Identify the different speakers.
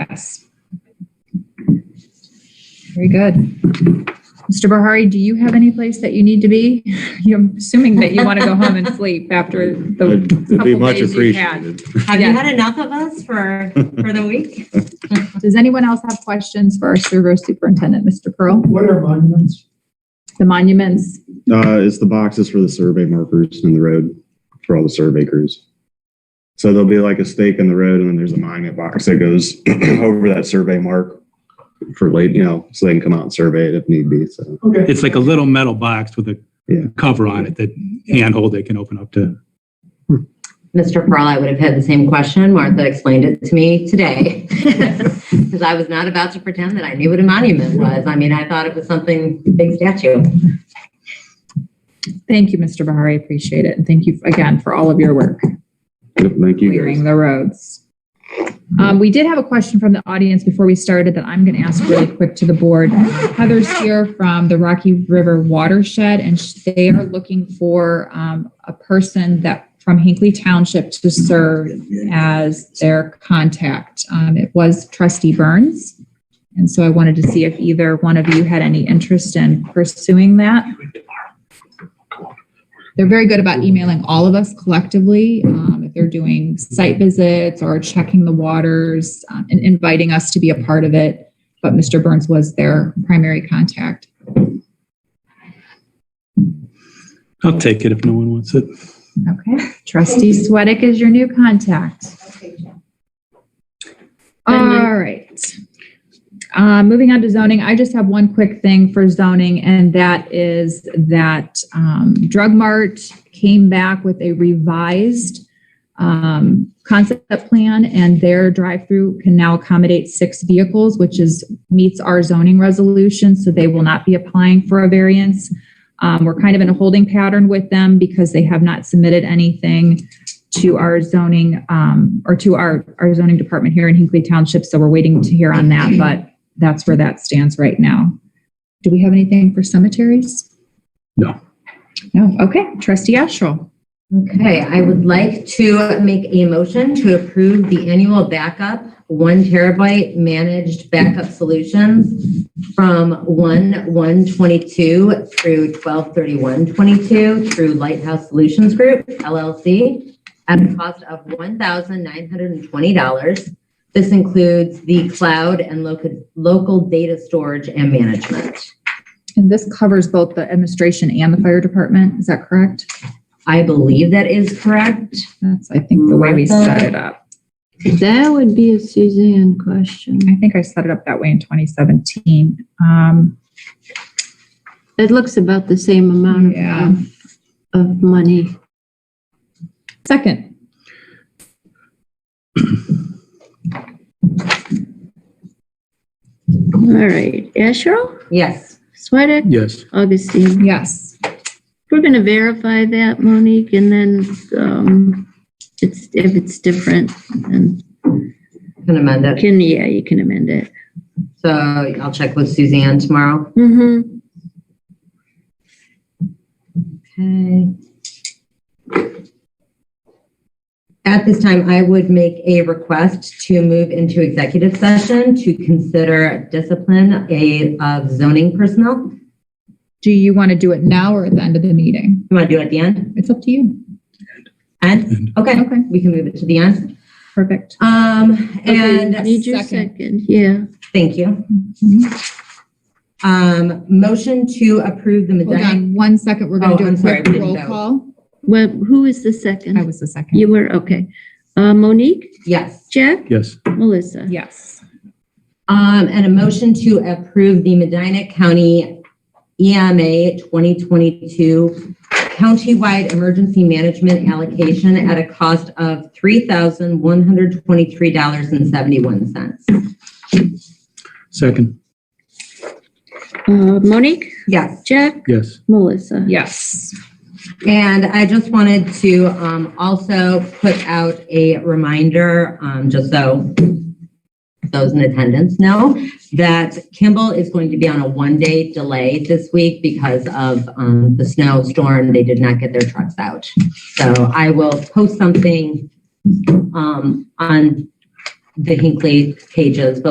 Speaker 1: Yes. Very good. Mr. Bahari, do you have any place that you need to be? I'm assuming that you want to go home and sleep after the,
Speaker 2: It'd be
Speaker 1: couple
Speaker 2: much
Speaker 1: days you've had.
Speaker 2: appreciated.
Speaker 3: Have
Speaker 1: Yeah.
Speaker 3: you had enough of us for, for the week?
Speaker 1: does anyone else have questions for our server superintendent, Mr. Pearl?
Speaker 4: What are monuments?
Speaker 1: The monuments,
Speaker 2: Uh, it's the boxes for the survey markers in the road for all the survey crews. So there'll be like a stake in the road and then there's a monument box that goes over that survey mark for late, you know, so they can come out and survey it if need be. So
Speaker 4: Okay.
Speaker 5: It's like a little metal box with a
Speaker 2: Yeah.
Speaker 5: cover on it that handhold they can open up to.
Speaker 3: Mr. Pearl, I would have had the same question. Martha explained it to me today. Because I was not about to pretend that I knew what a monument was. I mean, I thought it was something, big statue.
Speaker 1: thank you, Mr. Bahari, appreciate it. And thank you again for all of your work.
Speaker 2: yep, thank you guys.
Speaker 1: clearing the roads. Um, we did have a question from the audience before we started that I'm going to ask really quick to the board. Heather's here from the Rocky River Watershed, and sh- they are looking for um, a person that from Hinckley Township to serve as their contact. Um, it was Trustee Burns, and so I wanted to see if either one of you had any interest in pursuing that. They're very good about emailing all of us collectively. Um, if they're doing site visits or checking the waters uh, and inviting us to be a part of it. But Mr. Burns was their primary contact.
Speaker 5: I'll take it if no one wants it.
Speaker 1: Okay. Trustee Sweattick is your new contact. All right. Uh, moving on to zoning, I just have one quick thing for zoning, and that is that um, Drug Mart came back with a revised um, concept plan, and their drive-through can now accommodate six vehicles, which is meets our zoning resolution, so they will not be applying for a variance. Um, we're kind of in a holding pattern with them because they have not submitted anything to our zoning, um, or to our, our zoning department here in Hinkley Township. So we're waiting to hear on that, but that's where that stands right now. Do we have anything for cemeteries?
Speaker 5: No.
Speaker 1: No, okay. Trustee Astral.
Speaker 3: Okay, I would like to make a motion to approve the annual backup, one terabyte managed backup solutions from one, one twenty-two through twelve thirty-one twenty-two through Lighthouse Solutions Group LLC at a cost of one thousand nine hundred and twenty dollars. This includes the cloud and local, local data storage and management.
Speaker 1: And this covers both the administration and the fire department. Is that correct?
Speaker 3: I believe that is correct.
Speaker 1: That's, I think, the way we set it up.
Speaker 6: That would be a Suzanne question.
Speaker 1: I think I set it up that way in 2017. Um,
Speaker 6: It looks about the same amount of-
Speaker 1: Yeah.
Speaker 6: of, of money.
Speaker 1: second.
Speaker 6: All right, Asherle,
Speaker 3: Yes.
Speaker 6: Swedek,
Speaker 5: Yes.
Speaker 6: Augustine.
Speaker 1: Yes.
Speaker 6: We're going to verify that, Monique, and then um, it's, if it's different, then
Speaker 3: Can amend it.
Speaker 6: can, yeah, you can amend it.
Speaker 3: So I'll check with Suzanne tomorrow.
Speaker 6: Mm-hmm.
Speaker 3: Okay. At this time, I would make a request to move into executive session to consider discipline a- of zoning personnel.
Speaker 1: Do you want to do it now or at the end of the meeting?
Speaker 3: You want to do it at the end?
Speaker 1: It's up to you.
Speaker 3: End? Okay,
Speaker 1: Okay.
Speaker 3: we can move it to the end.
Speaker 1: Perfect.
Speaker 3: Um, and
Speaker 6: Need your
Speaker 1: second.
Speaker 6: second, yeah.
Speaker 3: thank you. Um, motion to approve the
Speaker 1: Hold
Speaker 3: Medina.
Speaker 1: on one second. We're
Speaker 3: Oh,
Speaker 1: going to do
Speaker 3: I'm
Speaker 1: a
Speaker 3: sorry,
Speaker 1: quick
Speaker 3: we didn't
Speaker 1: roll
Speaker 3: vote.
Speaker 1: call.
Speaker 6: Well, who is the
Speaker 1: I
Speaker 6: second?
Speaker 1: was the second.
Speaker 6: You were, okay. Uh, Monique,
Speaker 3: Yes.
Speaker 6: Jack,
Speaker 5: Yes.
Speaker 6: Melissa.
Speaker 1: Yes.
Speaker 3: Um, and a motion to approve the Medina County E EMA 2022 countywide emergency management allocation at a cost of $3,123.71.
Speaker 5: Second.
Speaker 6: Uh, Monique,
Speaker 3: Yes.
Speaker 6: Jack,
Speaker 5: Yes.
Speaker 6: Melissa.
Speaker 1: Yes.
Speaker 3: And I just wanted to um, also put out a reminder, um, just so those in attendance know, that Kimball is going to be on a one-day delay this week because of um, the snowstorm. They did not get their trucks out. So I will post something um, on the Hinkley pages, but